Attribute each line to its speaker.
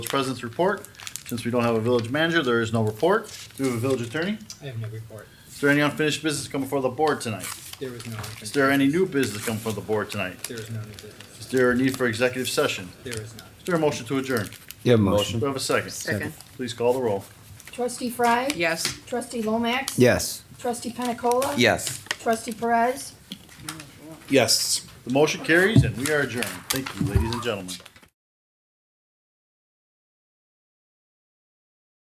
Speaker 1: Village President's report. Since we don't have a village manager, there is no report. Do we have a village attorney?
Speaker 2: I have no report.
Speaker 1: Is there any unfinished business come before the board tonight?
Speaker 2: There was no.
Speaker 1: Is there any new business come before the board tonight?
Speaker 2: There was no new business.
Speaker 1: Is there a need for executive session?
Speaker 2: There was none.
Speaker 1: Is there a motion to adjourn?
Speaker 3: You have a
Speaker 1: Do
Speaker 3: motion?
Speaker 1: we have a second?
Speaker 4: Second.
Speaker 1: Please call the roll.
Speaker 5: Trustee Fry?
Speaker 4: Yes.
Speaker 5: Trustee Lomax?
Speaker 3: Yes.
Speaker 5: Trustee Penicola?
Speaker 3: Yes.
Speaker 5: Trustee Perez?
Speaker 3: Yes.
Speaker 1: The motion carries and we are adjourned. Thank you, ladies and gentlemen.